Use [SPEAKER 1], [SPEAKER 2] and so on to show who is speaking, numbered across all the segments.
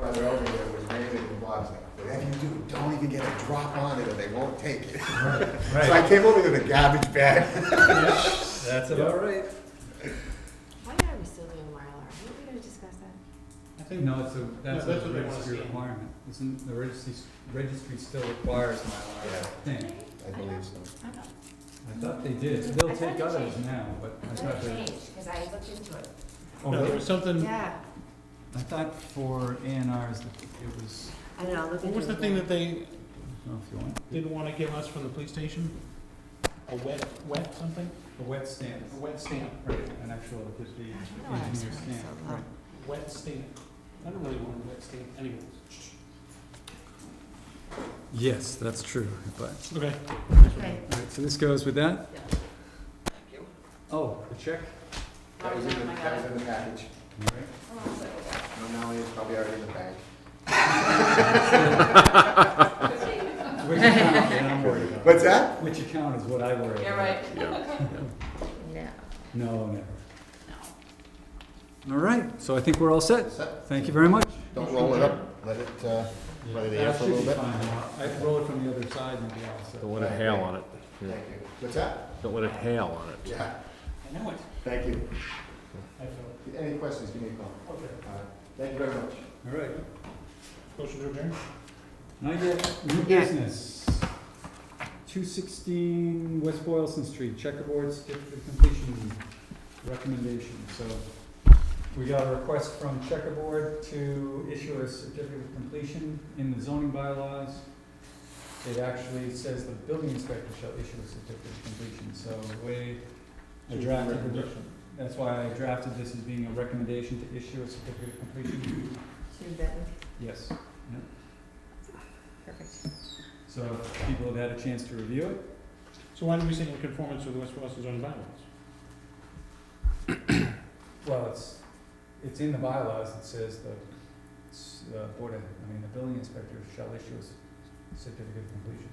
[SPEAKER 1] came over with a garbage bag.
[SPEAKER 2] That's about right.
[SPEAKER 3] Why are we still doing Mylar? Are we gonna discuss that?
[SPEAKER 4] I think no, it's a, that's
[SPEAKER 5] that's
[SPEAKER 4] a
[SPEAKER 5] what they wanna
[SPEAKER 4] registry
[SPEAKER 5] see.
[SPEAKER 4] requirement, isn't, the registry, registry still requires Mylar, I think.
[SPEAKER 1] I believe so.
[SPEAKER 3] I don't know.
[SPEAKER 4] I thought they did,
[SPEAKER 3] I
[SPEAKER 4] they'll
[SPEAKER 3] thought
[SPEAKER 4] take
[SPEAKER 3] they
[SPEAKER 4] others
[SPEAKER 3] changed.
[SPEAKER 4] now, but I
[SPEAKER 3] I
[SPEAKER 4] thought
[SPEAKER 3] thought it
[SPEAKER 4] they, Oh,
[SPEAKER 3] changed, cause I looked into it.
[SPEAKER 5] No, there was something,
[SPEAKER 3] Yeah.
[SPEAKER 4] I thought for A and Rs, that it was,
[SPEAKER 3] I know, I'll look into it.
[SPEAKER 5] what was the thing that they
[SPEAKER 4] I don't know if you want,
[SPEAKER 5] didn't wanna give us from the police station? A wet, wet something?
[SPEAKER 4] a wet stamp,
[SPEAKER 5] A wet stamp,
[SPEAKER 4] right, an actual, it could be
[SPEAKER 3] I don't know why I was oh.
[SPEAKER 4] engineer
[SPEAKER 3] trying to
[SPEAKER 4] stamp,
[SPEAKER 3] sell
[SPEAKER 4] right.
[SPEAKER 3] that.
[SPEAKER 5] wet stamp. I don't really want a wet stamp anyways.
[SPEAKER 4] Yes, that's true, but,
[SPEAKER 5] Okay.
[SPEAKER 3] Okay.
[SPEAKER 4] all right, so this goes with that?
[SPEAKER 3] Yeah.
[SPEAKER 4] Oh, the check?
[SPEAKER 1] That was in the, that was in the package.
[SPEAKER 4] All right.
[SPEAKER 1] No, now it's probably already in the bag.
[SPEAKER 4] Which account, then I'm worried about.
[SPEAKER 1] What's that?
[SPEAKER 4] Which account is what I worry about.
[SPEAKER 3] No.
[SPEAKER 4] No, never. No. All right, so I think we're all set. Thank you very much.
[SPEAKER 1] Don't roll it up, let it, uh, let it air for a little bit.
[SPEAKER 4] I can roll it from the other side and be all set.
[SPEAKER 6] Don't let it hail on it.
[SPEAKER 1] Thank you. What's that?
[SPEAKER 6] Don't let it hail on it.
[SPEAKER 1] Yeah,
[SPEAKER 5] I know it.
[SPEAKER 1] thank you.
[SPEAKER 5] I feel
[SPEAKER 1] Any questions, give me a call.
[SPEAKER 5] it. Okay.
[SPEAKER 1] Uh, Thank you very much.
[SPEAKER 4] All right,
[SPEAKER 5] Motion to adjourn?
[SPEAKER 4] now you get new
[SPEAKER 3] Yeah.
[SPEAKER 4] business. Two sixteen West Boylston Street, checkerboard certificate of completion recommendation. So we got a request from checkerboard to issue a certificate of completion in the zoning bylaws. It actually says the building inspector shall issue a certificate of completion, so the way I drafted the That's why I drafted this as being a recommendation to issue a certificate of completion.
[SPEAKER 3] Should that one?
[SPEAKER 4] Yes.
[SPEAKER 3] Perfect.
[SPEAKER 4] So if people have had a chance to review it.
[SPEAKER 5] So why do we say in conformance with the West Boylston zoning bylaws?
[SPEAKER 4] Well, it's, it's in the bylaws, it says the, s- the board, of- I mean, the building inspector shall issue a s- certificate of completion.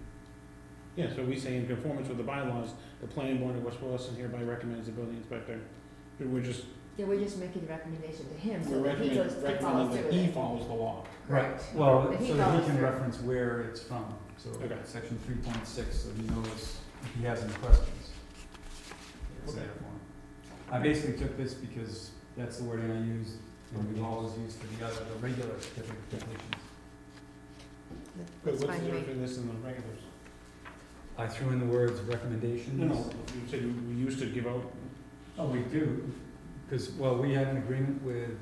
[SPEAKER 5] Yeah, so we say in conformance with the bylaws, the planning board of West Boylston hereby recommends the building inspector. We're just,
[SPEAKER 3] Yeah, we're just making the recommendation to him,
[SPEAKER 5] we're
[SPEAKER 3] so that he
[SPEAKER 5] recommending,
[SPEAKER 3] goes, he
[SPEAKER 5] recommending
[SPEAKER 3] follows through
[SPEAKER 5] that
[SPEAKER 3] with
[SPEAKER 5] he
[SPEAKER 3] it.
[SPEAKER 5] follows the E law.
[SPEAKER 3] Right.
[SPEAKER 4] Well,
[SPEAKER 3] But he
[SPEAKER 4] so that
[SPEAKER 3] follows
[SPEAKER 4] he can
[SPEAKER 3] through.
[SPEAKER 4] reference where it's from, so
[SPEAKER 5] Okay.
[SPEAKER 4] section three point six, so he knows if he has any questions. It's
[SPEAKER 5] Okay.
[SPEAKER 4] there for him. I basically took this because that's the wording I used, and we've always used for the other, the regular certificate of completion.
[SPEAKER 5] But
[SPEAKER 3] That's
[SPEAKER 5] what's
[SPEAKER 3] fine,
[SPEAKER 5] the
[SPEAKER 3] right?
[SPEAKER 5] difference in this and the regulars?
[SPEAKER 4] I threw in the words recommendations.
[SPEAKER 5] No, no, you said you- we used to give out,
[SPEAKER 4] Oh, we do, because, well, we had an agreement with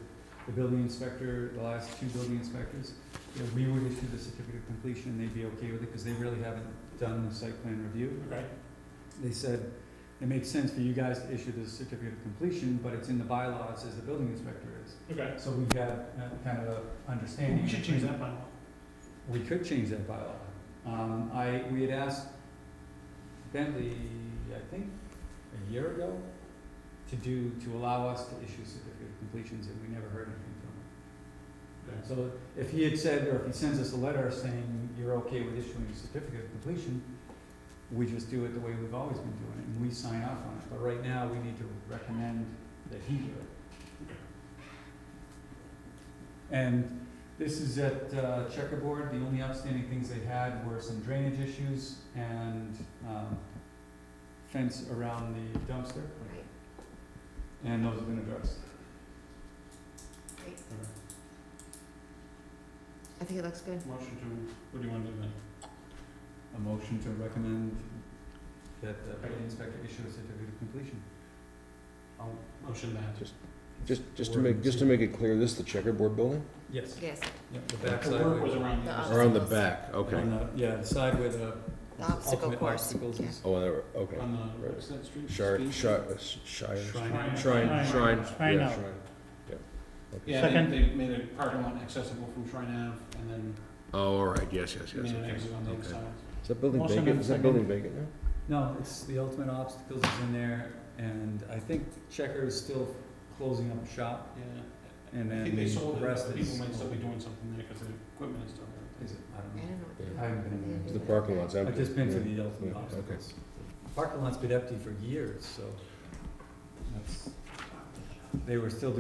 [SPEAKER 4] the building inspector, the last two building inspectors, that we would issue the certificate of completion, and they'd be okay with it, because they really haven't done the site plan review.
[SPEAKER 5] okay?
[SPEAKER 4] they said, it makes sense for you guys to issue this certificate of completion, but it's in the bylaws as the building inspector is.
[SPEAKER 5] Okay.
[SPEAKER 4] So we had uh, kind of a understanding.
[SPEAKER 5] We should change that bylaw.
[SPEAKER 4] We could change that bylaw. Um, I, we had asked Bentley, I think, a year ago, to do, to allow us to issue certificate of completions, and we never heard anything from him.
[SPEAKER 5] Okay.
[SPEAKER 4] So if he had said, or if he sends us a letter saying you're okay with issuing a certificate of completion, we just do it the way we've always been doing it, and we sign off on it, but right now, we need to recommend that he do it. And this is at uh, Checkerboard, the only outstanding things they had were some drainage issues and, um, fence around the dumpster,
[SPEAKER 3] Right.
[SPEAKER 4] and those have been addressed.
[SPEAKER 3] Great. I think it looks good.
[SPEAKER 5] Motion to, what do you want to do then?
[SPEAKER 4] a motion to recommend that the building inspector issue a certificate of completion.
[SPEAKER 5] I'll motion that. Just
[SPEAKER 6] Just, just to make, just to make it clear, this is the checkerboard building?
[SPEAKER 4] Yes.
[SPEAKER 3] Yes,
[SPEAKER 4] Yep, the
[SPEAKER 5] The work was around the
[SPEAKER 3] The
[SPEAKER 5] other
[SPEAKER 3] Or on
[SPEAKER 6] Around
[SPEAKER 3] the
[SPEAKER 6] the
[SPEAKER 3] Obstacles. back,
[SPEAKER 6] back, okay.
[SPEAKER 4] Yeah, the side where the
[SPEAKER 3] The obstacle
[SPEAKER 4] ultimate
[SPEAKER 3] course,
[SPEAKER 4] obstacles is.
[SPEAKER 6] Oh, there, okay.
[SPEAKER 5] side, on the,
[SPEAKER 6] Right.
[SPEAKER 5] what's that street?
[SPEAKER 6] Shire,
[SPEAKER 5] Speed?
[SPEAKER 6] shire, uh, shire,
[SPEAKER 4] Shrine.
[SPEAKER 6] shrine, shrine,
[SPEAKER 5] Shrine
[SPEAKER 6] yeah,
[SPEAKER 5] Ave.
[SPEAKER 6] shrine. Yeah. Okay.
[SPEAKER 5] Yeah, they, they made a parking lot accessible from Shrine Ave and then
[SPEAKER 6] Oh, all right, yes, yes, yes,
[SPEAKER 5] made an
[SPEAKER 6] okay.
[SPEAKER 5] exit on the other
[SPEAKER 6] okay.
[SPEAKER 5] side.
[SPEAKER 6] Is that building
[SPEAKER 5] Motion
[SPEAKER 6] vacant,
[SPEAKER 5] and
[SPEAKER 6] is that
[SPEAKER 5] second.
[SPEAKER 6] building vacant now?
[SPEAKER 4] No, it's, the ultimate obstacles is in there, and I think Checker is still closing up shop,
[SPEAKER 5] Yeah.
[SPEAKER 4] and
[SPEAKER 5] I
[SPEAKER 4] then
[SPEAKER 5] think they sold
[SPEAKER 4] the
[SPEAKER 5] it,
[SPEAKER 4] rest
[SPEAKER 5] but
[SPEAKER 4] is.
[SPEAKER 5] people might still be doing something there because the equipment is still there.
[SPEAKER 4] Is it, I
[SPEAKER 3] I
[SPEAKER 4] don't know.
[SPEAKER 3] don't know. what to do.
[SPEAKER 4] I haven't been in there.
[SPEAKER 6] The parking lot's empty.
[SPEAKER 4] I've just been to
[SPEAKER 6] yeah.
[SPEAKER 4] the ultimate
[SPEAKER 6] Yeah, okay.
[SPEAKER 4] obstacles. Parking lot's been empty for years, so that's, they were still doing